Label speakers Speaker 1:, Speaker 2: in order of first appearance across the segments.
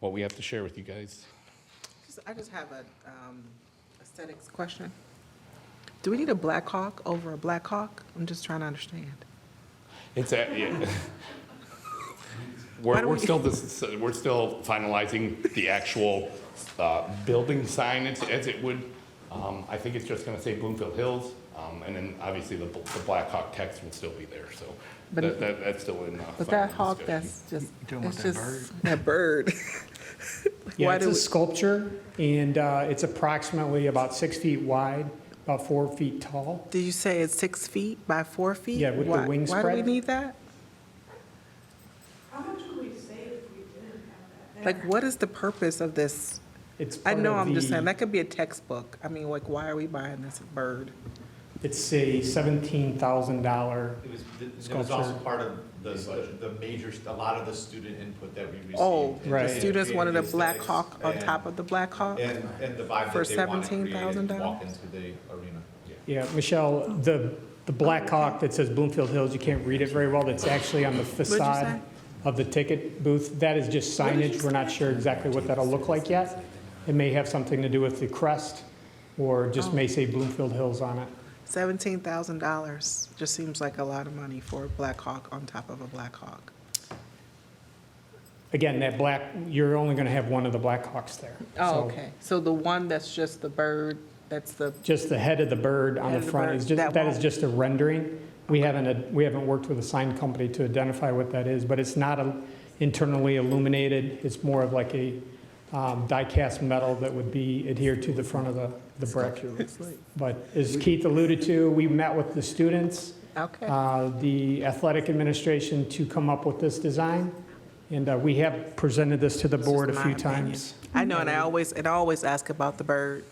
Speaker 1: what we have to share with you guys.
Speaker 2: Just- I just have a um, aesthetics question. Do we need a Black Hawk over a Black Hawk? I'm just trying to understand.
Speaker 1: It's a, yeah. We're,
Speaker 2: Why don't
Speaker 1: we're
Speaker 2: we-
Speaker 1: still, dis- we're still finalizing the actual, uh, building sign as, as it would. Um, I think it's just gonna say Bloomfield Hills, um, and then obviously the, bl- the Black Hawk text will still be there, so.
Speaker 2: But-
Speaker 1: That, that, that's still in. uh,
Speaker 2: But that
Speaker 1: final
Speaker 2: hawk,
Speaker 1: discussion.
Speaker 2: that's just,
Speaker 3: You talking
Speaker 2: it's
Speaker 3: about that
Speaker 2: just that bird.
Speaker 4: Yeah,
Speaker 2: Why
Speaker 4: it's
Speaker 2: do
Speaker 4: a
Speaker 2: we-
Speaker 4: sculpture, and uh, it's approximately about six feet wide, about four feet tall.
Speaker 2: Did you say it's six feet by four feet?
Speaker 4: Yeah, with the
Speaker 2: Why-
Speaker 4: wing
Speaker 2: Why do we
Speaker 4: spread.
Speaker 2: need that? How much would we save if we didn't have that? Like, what is the purpose of this?
Speaker 4: It's
Speaker 2: I
Speaker 4: part
Speaker 2: know,
Speaker 4: of
Speaker 2: I'm just saying,
Speaker 4: the,
Speaker 2: that could be a textbook. I mean, like, why are we buying this bird?
Speaker 4: it's a $17,000.
Speaker 5: It was, th- it was also
Speaker 4: Sculpture.
Speaker 5: part of the, the- the major, st- a lot of the student input that we received.
Speaker 2: Oh,
Speaker 5: and
Speaker 2: the
Speaker 4: Right.
Speaker 2: students wanted a
Speaker 5: creative
Speaker 2: Black
Speaker 5: aesthetics
Speaker 2: Hawk on
Speaker 5: and-
Speaker 2: top of the Black Hawk?
Speaker 5: And, and the vibe
Speaker 2: For
Speaker 5: that they want to create and
Speaker 2: $17,000?
Speaker 5: walk into the arena.
Speaker 4: Yeah, Michelle, the, the Black Hawk that says Bloomfield Hills, you can't read it very well, that's actually on the facade of the ticket booth. That is just signage. We're not sure exactly what that'll look like yet. It may have something to do with the crest, or
Speaker 2: Oh.
Speaker 4: just may say Bloomfield Hills on it.
Speaker 2: Seventeen thousand dollars just seems like a lot of money for a Black Hawk on top of a Black Hawk.
Speaker 4: Again, that black, you're only going to have one of the Black Hawks there. So
Speaker 2: Oh, So the one that's just the bird, that's the,
Speaker 4: Just the head of the bird on
Speaker 2: Head
Speaker 4: the
Speaker 2: of the
Speaker 4: front
Speaker 2: bird,
Speaker 4: is just,
Speaker 2: that
Speaker 4: that is
Speaker 2: won't-
Speaker 4: just a rendering. We haven't, ad- we haven't worked with a sign company to identify what that is, but it's not a- internally illuminated. It's more of like a um, die-cast metal that would be adhered to the front of the, the brick. But as Keith alluded to, we met with the students,
Speaker 2: okay.
Speaker 4: uh, the athletic administration to come up with this design. And uh, we have presented this to the board a
Speaker 2: my
Speaker 4: few
Speaker 2: opinion.
Speaker 4: times.
Speaker 2: I know, and I always, and I always ask about the bird,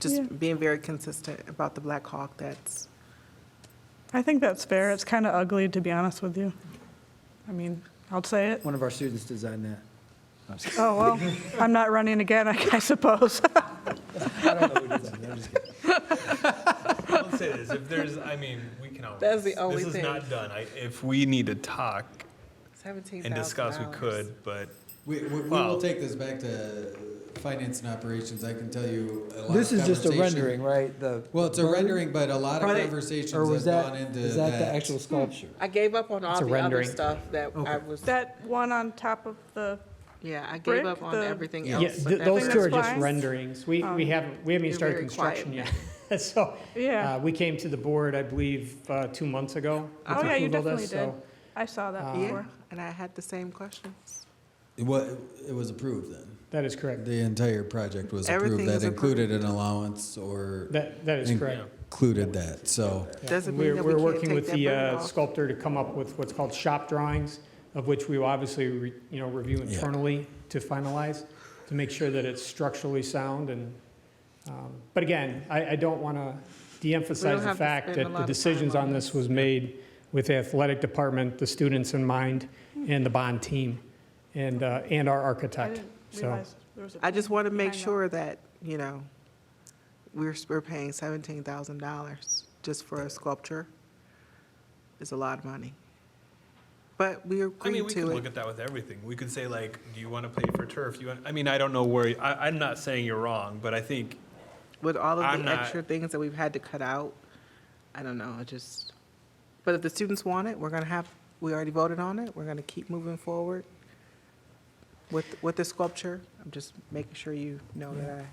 Speaker 2: just being very consistent about the Black Hawk that's,
Speaker 6: I think that's fair. It's kind of ugly, to be honest with you. I mean, I'll say it.
Speaker 3: One of our students designed that. I'm just
Speaker 6: Oh, well, I'm not running again, I I suppose.
Speaker 3: kidding. I don't know who designed that. I'm just kidding.
Speaker 7: I'll say this, if there's, I mean, we can always.
Speaker 2: That's the only
Speaker 7: This
Speaker 2: thing.
Speaker 7: is not done. I, if we need to talk
Speaker 2: seventeen thousand
Speaker 7: and
Speaker 2: dollars.
Speaker 7: discuss, we could, but
Speaker 8: We, we, we
Speaker 7: Well-
Speaker 8: will take this back to finance and operations. I can tell you a lot
Speaker 3: This
Speaker 8: of
Speaker 3: is just a
Speaker 8: conversation-
Speaker 3: rendering, right? The.
Speaker 8: Well, it's a
Speaker 3: bird?
Speaker 8: rendering, but a lot of
Speaker 2: Right.
Speaker 8: conversations
Speaker 3: Or was
Speaker 8: have
Speaker 3: that,
Speaker 8: gone into
Speaker 3: is that the actual sculpture?
Speaker 2: I gave up on all
Speaker 4: It's a
Speaker 2: the other
Speaker 4: rendering.
Speaker 2: stuff that I was,
Speaker 6: That one on top of the,
Speaker 2: yeah, I gave
Speaker 6: Brick,
Speaker 2: up on
Speaker 6: the-
Speaker 2: everything
Speaker 8: Yeah.
Speaker 2: else.
Speaker 4: Yeah,
Speaker 2: but
Speaker 4: th-
Speaker 2: that
Speaker 4: those
Speaker 2: one-
Speaker 4: two are
Speaker 6: That's
Speaker 4: just
Speaker 6: fine.
Speaker 4: renderings. We, we haven't, we haven't
Speaker 2: You're
Speaker 4: even started
Speaker 2: very quiet.
Speaker 4: construction yet. So, uh,
Speaker 6: yeah.
Speaker 4: we came to the board, I believe, uh, two months ago. with
Speaker 6: Oh, yeah, you
Speaker 4: approval of
Speaker 6: definitely
Speaker 4: this,
Speaker 6: did.
Speaker 4: so- um,
Speaker 6: I saw that
Speaker 2: Yeah,
Speaker 6: before.
Speaker 2: and I had the same questions.
Speaker 8: It wa- it was approved then.
Speaker 4: That is correct.
Speaker 8: The entire project was approved.
Speaker 2: Everything
Speaker 8: that
Speaker 2: was approved.
Speaker 8: included an allowance or
Speaker 4: That, that is correct.
Speaker 8: included that. So
Speaker 4: Yeah.
Speaker 2: Doesn't mean
Speaker 4: We're-
Speaker 2: that we can't
Speaker 4: We're working
Speaker 2: take
Speaker 4: with
Speaker 2: that
Speaker 4: the
Speaker 2: burden
Speaker 4: uh,
Speaker 2: off.
Speaker 4: sculptor to come up with what's called shop drawings, of which we will obviously, re- you know, review
Speaker 8: Yeah.
Speaker 4: internally to finalize, to make sure that it's structurally sound and, um, but again, I, I don't want to de-emphasize the
Speaker 2: have to
Speaker 4: fact
Speaker 2: spend a
Speaker 4: that
Speaker 2: lot
Speaker 4: the
Speaker 2: of
Speaker 4: decisions
Speaker 2: time on
Speaker 4: on this was made with the athletic department, the students in mind, and the bond team, and, uh, and our
Speaker 6: I
Speaker 4: architect.
Speaker 6: didn't
Speaker 4: So,
Speaker 6: realize there was a.
Speaker 2: I just want to make
Speaker 6: behind that.
Speaker 2: sure that, you know, we're, we're paying seventeen thousand dollars just for a sculpture. It's a lot of money. But we
Speaker 7: I mean, we
Speaker 2: agreed
Speaker 7: could
Speaker 2: to
Speaker 7: look
Speaker 2: it.
Speaker 7: at that with everything. We could say like, do you want to play for turf? You want, I mean, I don't know where, I, I'm not saying you're wrong, but I think
Speaker 2: With all of
Speaker 7: I'm
Speaker 2: the
Speaker 7: not-
Speaker 2: extra things that we've had to cut out, I don't know, I just, but if the students want it, we're gonna have, we already voted on it, we're gonna keep moving forward with, with the sculpture. I'm just making sure you know that I,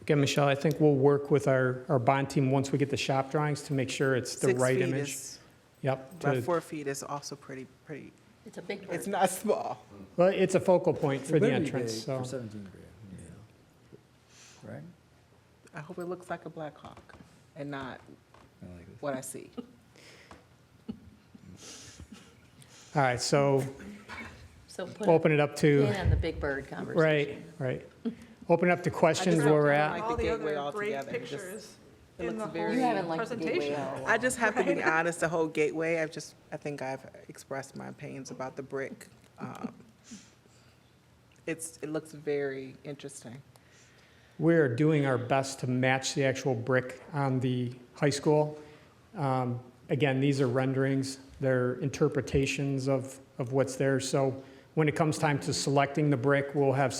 Speaker 4: again, Michelle, I think we'll work with our, our bond team, once we get the shop drawings, to make sure it's the
Speaker 2: six
Speaker 4: right
Speaker 2: feet
Speaker 4: image.
Speaker 2: is,
Speaker 4: Yep.
Speaker 2: by
Speaker 4: to-
Speaker 2: four feet is also pretty, pretty,
Speaker 9: It's a big
Speaker 2: it's
Speaker 9: bird.
Speaker 2: not small.
Speaker 4: Well, it's a focal point
Speaker 3: It
Speaker 4: for the
Speaker 3: better be
Speaker 4: entrance,
Speaker 3: big
Speaker 4: so.
Speaker 3: For 17 grand, yeah. Right?
Speaker 2: I hope it looks like a Black Hawk and not
Speaker 3: I like this.
Speaker 2: what I see.
Speaker 4: All right, so
Speaker 9: So put a
Speaker 4: open it up to,
Speaker 9: pin on the big bird conversation.
Speaker 4: right, right. Open it up to questions where we're at.
Speaker 2: like the
Speaker 6: All the
Speaker 2: gateway
Speaker 6: other great
Speaker 2: altogether, just-
Speaker 6: pictures
Speaker 2: it
Speaker 6: in
Speaker 2: looks
Speaker 6: the
Speaker 2: very-
Speaker 9: You haven't
Speaker 6: whole
Speaker 9: liked the gateway
Speaker 6: presentation.
Speaker 9: at all.
Speaker 2: I just have to be honest, the whole gateway, I've just, I think I've expressed my opinions about the brick. Um, It's, it looks very interesting.
Speaker 4: We're doing our best to match the actual brick on the high school. Um, Again, these are renderings, they're interpretations of, of what's there. So when it comes time to selecting the brick, we'll have